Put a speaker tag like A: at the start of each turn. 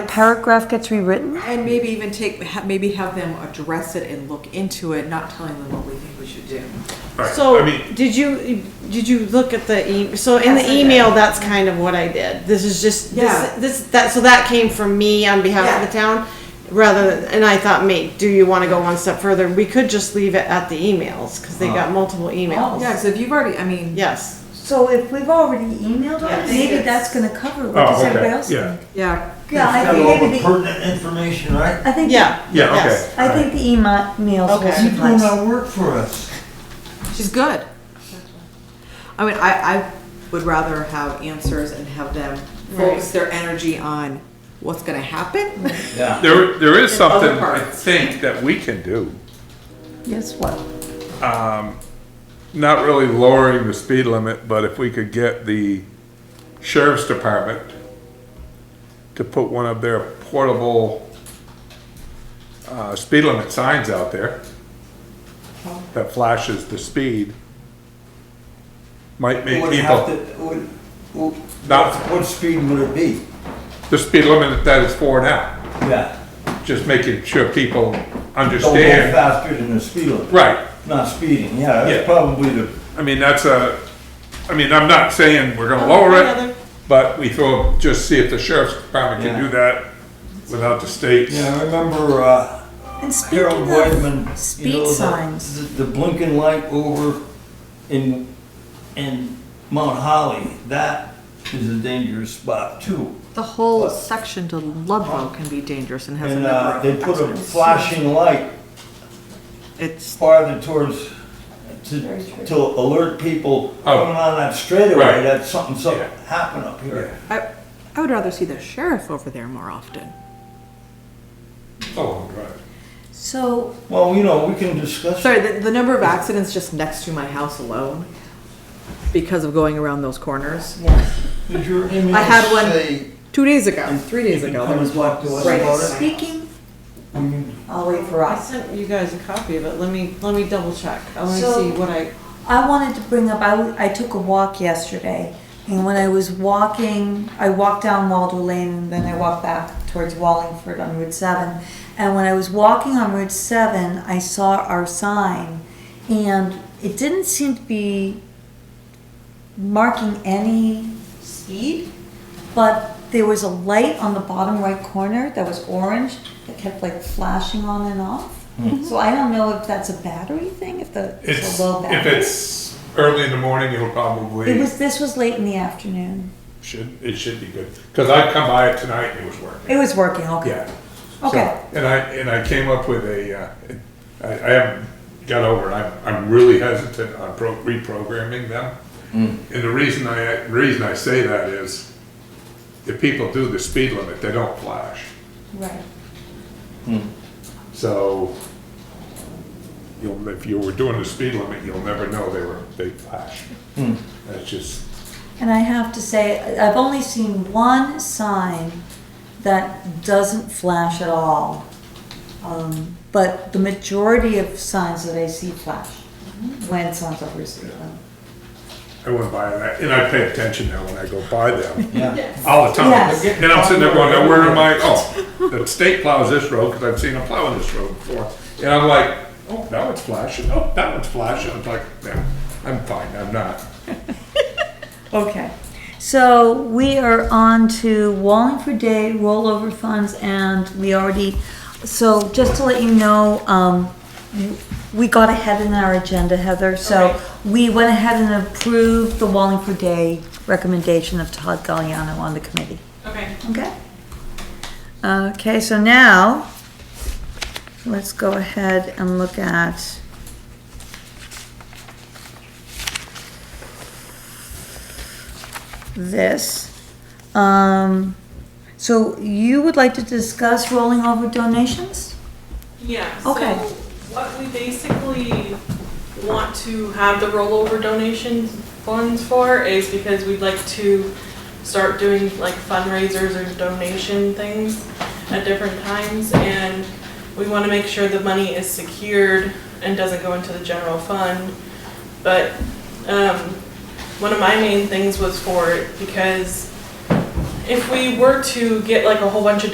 A: paragraph gets rewritten?
B: And maybe even take, ha- maybe have them address it and look into it, not telling them what we think we should do.
C: Alright, I
D: So,
C: mean,
D: did you, did you look at the e, so in
B: Yes,
D: the
B: I did.
D: email, that's kind of what I did. This is just,
B: Yeah.
D: this, this, that, so that came from me on behalf of the town. Rather, than- and I thought, mate, do you wanna go one step further? We could just leave it at the emails, cause they
C: Uh-huh.
D: got multiple
B: Yeah,
D: emails.
B: so if you've already, I mean,
D: Yes,
A: So if we've already emailed on it,
D: Yes.
A: maybe that's gonna cover it. What does
C: oh,
A: everybody
C: okay,
A: else
C: yeah,
A: think?
B: yeah,
A: Yeah, I
E: Got
A: think
E: all the
A: maybe the,
E: pertinent information, right?
A: I think,
D: yeah.
C: yeah,
D: yes.
C: okay.
A: I think the emails will
D: Okay.
E: You're doing
A: suffice.
E: our work for us.
B: she's good. I mean, I, I would rather have answers and have them focus their energy on what's gonna happen.
E: Yeah.
C: There, there is
B: In other
C: something, I
B: parts.
C: think, that we can do,
A: Yes, what?
C: not really lowering the speed limit, but if we could get the sheriff's department to put one of their portable, uh, speed limit signs out there that flashes the speed, might make
E: Would have
C: people,
E: to, would, would-
C: Not-
E: what speed would it be?
C: the speed limit that is for now.
E: Yeah.
C: just making sure people
E: Don't go
C: understand.
E: faster than the speed limit.
C: Right,
E: Not speeding, yeah,
C: Yeah.
E: that's probably the,
C: I mean, that's a, I mean, I'm not saying we're gonna lower it, but we thought, just see if the sheriff's department can
E: Yeah.
C: do that without the states.
E: yeah, I remember, uh,
A: And speaking
E: Harold
A: of
E: Weidman. you know,
A: speed
E: the-
A: signs,
E: the- The blinking light over in, in Mount Holly, that is a dangerous spot too.
B: The whole section to Ludlow can be dangerous and has a
E: And,
B: number
E: uh,
B: of
E: they put a
B: accidents.
E: flashing light
B: It's,
E: farther towards, to, to alert people coming on that straightaway
C: Oh. Right.
E: that something, something
C: Yeah.
E: happened up here.
B: I, I would rather see the sheriff over there more often.
C: Oh, right.
A: so
E: Well, you know, we can discuss.
B: Sorry, the, the number of accidents just next to my house alone because of going around those corners.
E: Did your email
B: I had one
E: say
B: Two days ago, three days
E: you can
B: ago,
E: come
B: there was
E: and talk
B: one.
E: to us
B: right
E: about it?
A: speaking,
E: we can-
A: I'll wait for
D: I
A: us.
D: sent you guys a copy of it, let me, let me double check, I wanna
A: So-
D: see what I,
A: I wanted to bring up, I, w- I took a walk yesterday, and when I was walking, I walked down Waldo Lane, and then I walked back towards Wallingford on Route 7. And when I was walking on Route 7, I saw our sign, and it didn't seem to be marking any speed, but there was a light on the bottom right corner that was orange that kept like flashing on and off. So I don't know if that's a battery thing, if the
C: It's,
A: Hmm. it's a low
C: if
A: battery.
C: it's early in the morning, it'll
A: It
C: probably,
A: was, this was late in the afternoon.
C: should, it should be good, cause I come by it tonight and it was working,
A: It was working, okay.
C: yeah. So,
A: Okay.
C: And I, and I came up with a, uh, I, I haven't got over, it. I'm, I'm really hesitant on pro- reprogramming them. And the reason I, reason I say that is, if people do the speed limit, they don't flash.
A: Right.
C: So, you'll, if you were doing the speed limit, you'll never know they were, they flash. That's just,
A: And I have to say, I- I've only seen one sign that doesn't flash at all. Um, But the majority of signs that I see flash when someone's over speed limit.
C: I went by that, and I pay attention now when I go by them,
E: Yeah.
C: all the time.
A: Yes.
C: And I'm sitting there going, now where am I, oh, the state plows this road, because I've seen them plowing this road before. And I'm like, oh, now it's flashing, oh, that one's flashing, I'm like, yeah, I'm fine, I'm not.
A: Okay, so we are on to Wallingford Day rollover funds and we already, so just to let you know, um, we got ahead in our agenda, Heather, so we went ahead and approved the Wallingford Day recommendation of Todd Galliano on the committee.
D: Okay.
A: Okay? Okay, so now, let's go ahead and look at this. Um, so you would like to discuss rolling over donations?
F: Yeah, so
A: Okay.
F: what we basically want to have the rollover donation funds for is because we'd like to start doing like fundraisers or donation things at different times and we want to make sure the money is secured and doesn't go into the general fund. But um, one of my main things was for it because if we were to get like a whole bunch of